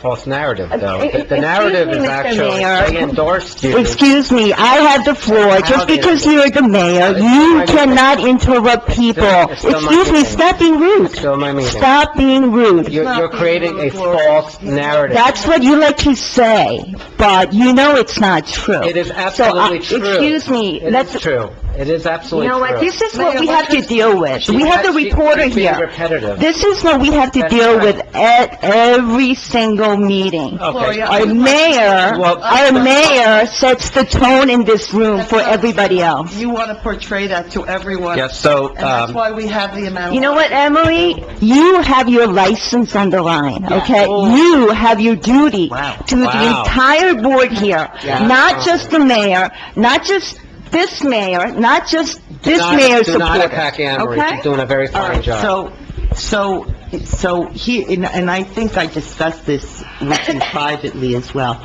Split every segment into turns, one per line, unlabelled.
false narrative, though. The-
Uh, Excuse
The
me,
narrative is
Mr.
actually,
Mayor.
they endorsed you.
Excuse me, I have the floor. Just because you're the mayor, you cannot interrupt people. Excuse me, stop being rude.
Still my meeting.
Stop being rude.
You're, you're creating a false narrative.
That's what you like to say, but you know it's not true.
It is
So, uh,
absolutely true.
Excuse me,
It
let's,
is true. It is absolutely
you know
true.
what, this is what we have to deal with.
She
We have
has-
the
she-
reporter
she's being
here.
repetitive.
This is what we have to
That's
deal
right.
with at every single meeting.
Okay.
Our mayor,
Uh, Well- uh,
our mayor sets the tone in this room for everybody else.
You want to portray that to everyone.
Yes, so,
And that's
um,
why we have the amount of...
You know what, Emily? You have your license on the line, okay? You have your duty to the
Oh. Wow.
entire board here, not just the mayor, not just this mayor, not just this
do not-
mayor's
Do not
supporters,
attack Anne Marie.
okay?
She's doing a very
All
fine
right,
job.
so, so, so he, and and I think I discussed this with you privately as well.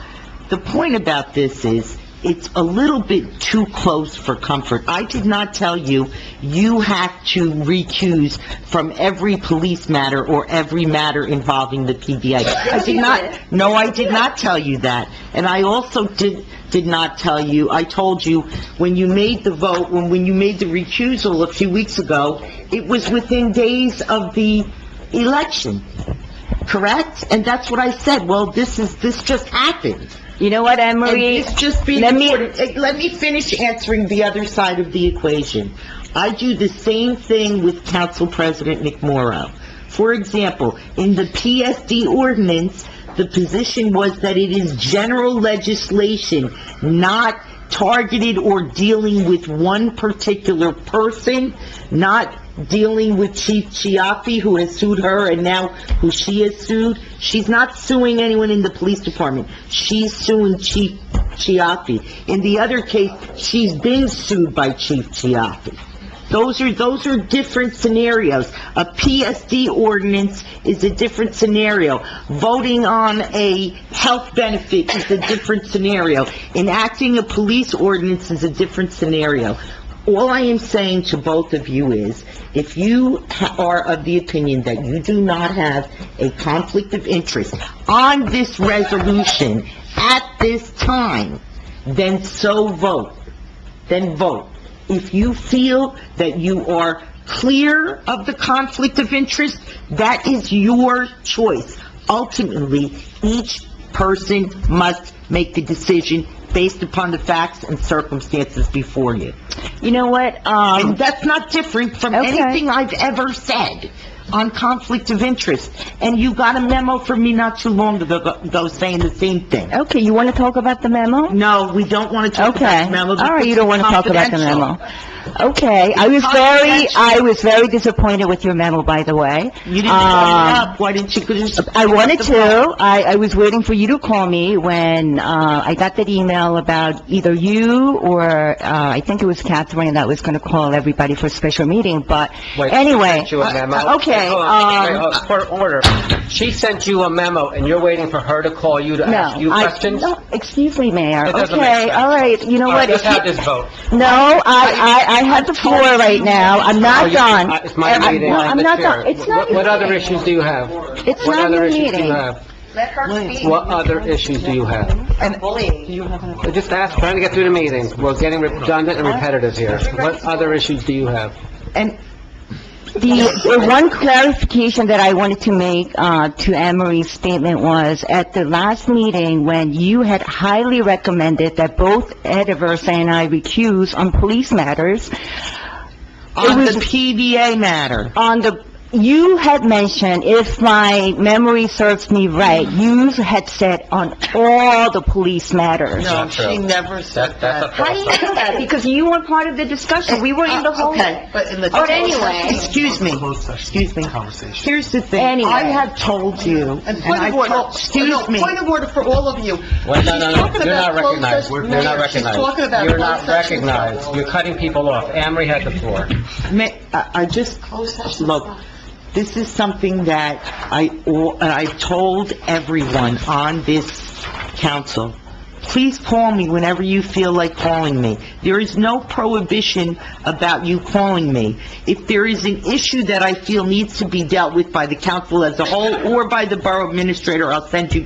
The point about this is, it's a little bit too close for comfort. I did not tell you, you have to recuse from every police matter or every matter involving the PBA. I did not, no, I did not tell you that. And I also did, did not tell you, I told you, when you made the vote, when, when you made the recusal a few weeks ago, it was within days of the election, correct? And that's what I said, well, this is, this just happened.
You know what, Anne
And
Marie?
it's just being
let me-
recorded. Eh, Let me finish answering the other side of the equation. I do the same thing with Council President McMorro. For example, in the PSD ordinance, the position was that it is general legislation, not targeted or dealing with one particular person, not dealing with Chief Chiaffi, who has sued her, and now who she has sued. She's not suing anyone in the police department. She's suing Chief Chiaffi. In the other case, she's been sued by Chief Chiaffi. Those are, those are different scenarios. A PSD ordinance is a different scenario. Voting on a health benefit is a different scenario. Enacting a police ordinance is a different scenario. All I am saying to both of you is, if you ha- are of the opinion that you do not have a conflict of interest on this resolution at this time, then so vote then vote. If you feel that you are clear of the conflict of interest, that is your choice. Ultimately, each person must make the decision based upon the facts and circumstances before you.
You know what, um...
And that's not different from
Okay.
anything I've ever said on conflict of interest. And you got a memo from me not too long ago ago saying the same thing.
Okay, you want to talk about the memo?
No, we don't want to talk about
Okay.
the memo.
All right, you
because
don't
it's
want to talk about the
confidential.
memo. Okay, I was very,
confidential.
I was very disappointed with your memo, by the way.
You didn't bring it
Um,
up, why didn't you? just-
I wanted to, I, I was waiting for you to call me when, uh, I got that email about either you or, uh, I think it was Catherine that was gonna call everybody for a special meeting, but
Wait,
anyway.
She sent you a memo?
uh, Okay,
Hold on, wait,
um,
hold on, court order. She sent you a memo, and you're waiting for her to call you to ask you
no, I,
questions?
no, excuse me, Mayor.
It doesn't make
Uh, Okay,
sense.
all right, you know
All right, let's
what? if you-
have this vote.
No, I, I, I have the floor right now, I'm
Oh,
not
you-
done.
uh, It's my
I-
meeting,
no,
I'm the
not
chair.
done. It's not
What- What
your
other
meeting.
issues do you have?
It's
What
not
other
your
issues do you
meeting.
have? What other issues do you have?
And
Just ask, trying to get through the meeting. We're getting redundant and repetitive here. What other issues do you have?
And,
The, the one clarification that I wanted to make, uh, to Anne Marie's statement was, at the last meeting, when you had highly recommended that both Ed Aversa and I recuse on police matters,
on
was-
the PVA matter,
on the, you had mentioned, if my memory serves me right, you had said on all the police matters.
no,
not true.
she never said that.
How do you know that? Because you were part of the discussion, we were in the whole...
Uh, Okay, but in the...
But anyway.
Excuse me, excuse me. Here's the thing,
Anyway.
I have told you, and
And point
I
of order,
told,
No,
excuse me.
point of order for all of you.
Wait, no,
She's
no, no,
talking
you're not
about closed
recognized.
session
We're- You're not
matters. She's talking
recognized.
about
You're
closed
not
session.
recognized. You're cutting people off. Anne Marie had the floor.
Ma- I I just, look, this is something that I, and I've told everyone on this council, please call me whenever you feel like calling me. There is no prohibition about you calling me. If there is an issue that I feel needs to be dealt with by the council as a whole or by the borough administrator, I'll send you